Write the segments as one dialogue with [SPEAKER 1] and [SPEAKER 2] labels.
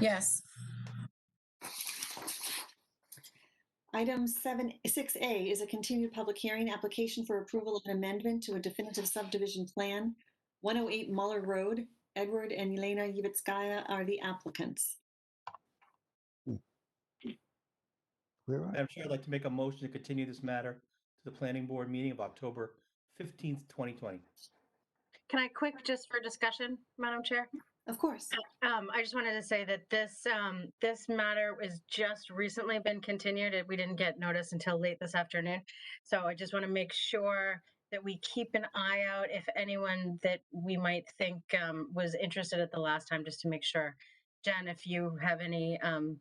[SPEAKER 1] Yes.
[SPEAKER 2] Item seven, six A is a continued public hearing, application for approval of an amendment to a definitive subdivision plan. One oh eight Muller Road, Edward and Elena Yivitskaya are the applicants.
[SPEAKER 3] Where are,
[SPEAKER 4] Madam Chair, I'd like to make a motion to continue this matter to the planning board meeting of October fifteenth, twenty twenty.
[SPEAKER 5] Can I quick, just for discussion, Madam Chair?
[SPEAKER 2] Of course,
[SPEAKER 5] Um, I just wanted to say that this, um, this matter was just recently been continued. and We didn't get notice until late this afternoon. So I just want to make sure that we keep an eye out if anyone that we might think, um, was interested at the last time, just to make sure. Jen, if you have any, um,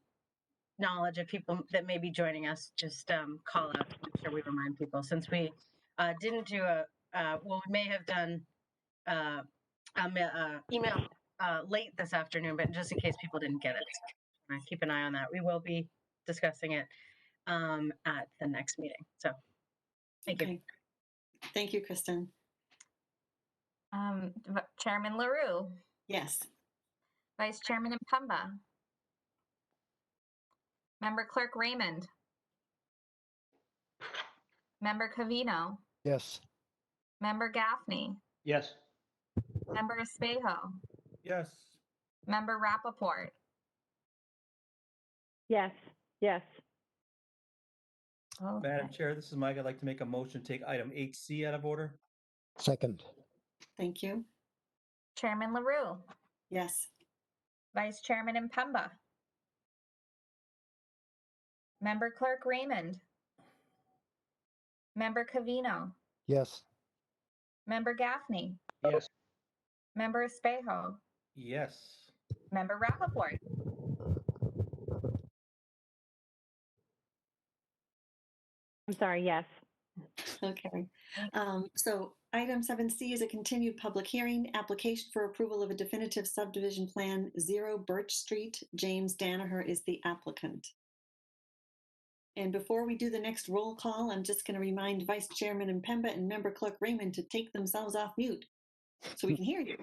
[SPEAKER 5] knowledge of people that may be joining us, just, um, call out. to make sure we remind people since we, uh, didn't do a, uh, well, we may have done, uh, a ma- uh, email uh, late this afternoon, but just in case people didn't get it, uh, keep an eye on that. We will be discussing it um, at the next meeting. So, thank you.
[SPEAKER 2] Okay. thank you, Kristen.
[SPEAKER 1] Um, V- Chairman LaRue,
[SPEAKER 2] Yes,
[SPEAKER 1] Vice Chairman Impemba. Member Clerk Raymond. Member Cavino,
[SPEAKER 3] yes,
[SPEAKER 1] Member Gaffney,
[SPEAKER 4] Yes.
[SPEAKER 1] Member Espejo,
[SPEAKER 4] Yes.
[SPEAKER 1] Member Rappaport,
[SPEAKER 6] Yes, yes.
[SPEAKER 4] Madam Chair, this is Mike. I'd like to make a motion to take item eight C out of order.
[SPEAKER 3] second,
[SPEAKER 2] thank you.
[SPEAKER 1] Chairman LaRue,
[SPEAKER 2] Yes,
[SPEAKER 1] Vice Chairman Impemba. Member Clerk Raymond. Member Cavino,
[SPEAKER 3] yes,
[SPEAKER 1] Member Gaffney,
[SPEAKER 4] Yes.
[SPEAKER 1] Member Espejo,
[SPEAKER 4] Yes.
[SPEAKER 1] Member Rappaport.
[SPEAKER 6] I'm sorry, yes.
[SPEAKER 2] okay. Um, so item seven C is a continued public hearing, application for approval of a definitive subdivision plan, zero Birch Street. James Danaher is the applicant. And before we do the next roll call, I'm just going to remind Vice Chairman Impemba and Member Clerk Raymond to take themselves off mute so we can hear you.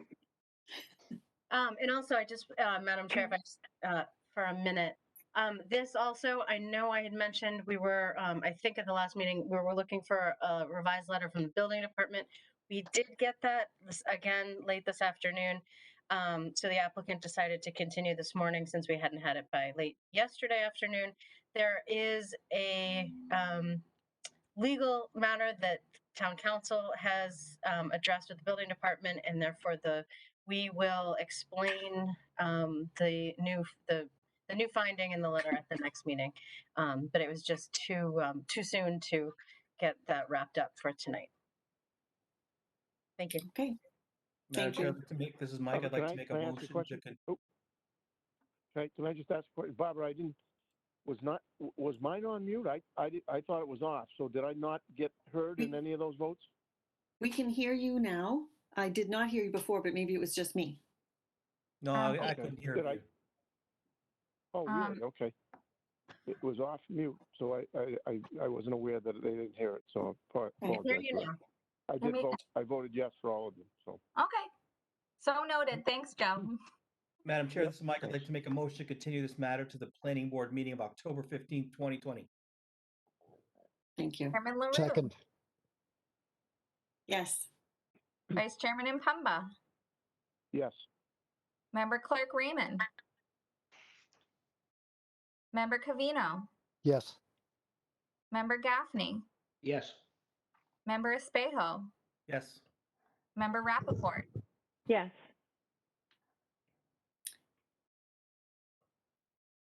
[SPEAKER 5] Um, and also, I just, uh, Madam Chair, if I just, uh, for a minute, um, this also, I know I had mentioned we were, um, I think at the last meeting, we were looking for a revised letter from the building department. We did get that this- again late this afternoon. Um, so the applicant decided to continue this morning since we hadn't had it by late yesterday afternoon. There is a, um, legal matter that town council has, um, addressed with the building department and therefore the we will explain um, the new the the new finding in the letter at the next meeting. Um, but it was just too um, too soon to get that wrapped up for tonight. Thank you.
[SPEAKER 2] Okay,
[SPEAKER 4] Madam
[SPEAKER 2] Thank
[SPEAKER 4] Chair,
[SPEAKER 2] you.
[SPEAKER 4] I'd like to make, this is Mike. I'd
[SPEAKER 7] Barbara,
[SPEAKER 4] like to
[SPEAKER 7] Oh, can I-
[SPEAKER 4] make a
[SPEAKER 7] can I ask a
[SPEAKER 4] motion to,
[SPEAKER 7] question?
[SPEAKER 4] con-
[SPEAKER 7] Okay, can I just ask, a que- Barbara, I didn't, was not, w- was mine on mute? I, I, di- I thought it was off, so did I not get heard in any of those votes?
[SPEAKER 2] we can hear you now. I did not hear you before, but maybe it was just me.
[SPEAKER 4] no,
[SPEAKER 1] Um,
[SPEAKER 4] I I
[SPEAKER 7] Ah, Okay.
[SPEAKER 4] couldn't hear
[SPEAKER 7] Did I-
[SPEAKER 4] you.
[SPEAKER 7] Oh,
[SPEAKER 1] Um,
[SPEAKER 7] really? Okay. It was off mute, so I, I, I, I wasn't aware that they didn't hear it, so I apo-
[SPEAKER 2] I hear
[SPEAKER 7] apologize.
[SPEAKER 5] Here you
[SPEAKER 7] for
[SPEAKER 5] now.
[SPEAKER 7] that. I did
[SPEAKER 1] me-
[SPEAKER 7] vote, I voted yes for all of them, so.
[SPEAKER 1] Okay. So noted. Thanks, Joe.
[SPEAKER 4] Madam Chair, this is Mike. I'd like to make a motion to continue this matter to the planning board meeting of October fifteenth, twenty twenty.
[SPEAKER 2] Thank you.
[SPEAKER 1] Chairman LaRue.
[SPEAKER 3] second,
[SPEAKER 2] Yes,
[SPEAKER 1] Vice Chairman Impemba.
[SPEAKER 7] Yes,
[SPEAKER 1] Member Clerk Raymond. Member Cavino.
[SPEAKER 3] yes,
[SPEAKER 1] Member Gaffney.
[SPEAKER 4] Yes.
[SPEAKER 1] Member Espejo.
[SPEAKER 4] Yes.
[SPEAKER 1] Member Rappaport.
[SPEAKER 6] Yes.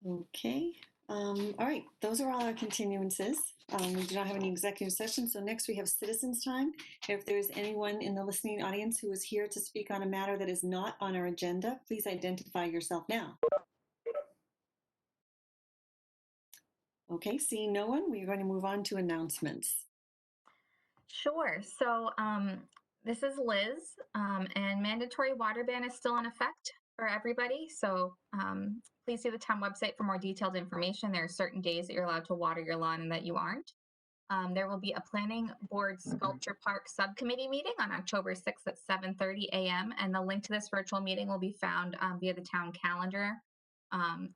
[SPEAKER 2] okay. Um, all right, those are all our continuances. Um, we do not have any executive session, so next we have citizens' time. If there is anyone in the listening audience who is here to speak on a matter that is not on our agenda, please identify yourself now. Okay, seeing no one, we are going to move on to announcements.
[SPEAKER 1] Sure. So um, this is Liz, um, and mandatory water ban is still in effect for everybody. So um, please see the town website for more detailed information. There are certain days that you're allowed to water your lawn and that you aren't. Um, there will be a planning board sculpture park subcommittee meeting on October 6th at 7:30 a.m. And the link to this virtual meeting will be found um, via the town calendar um,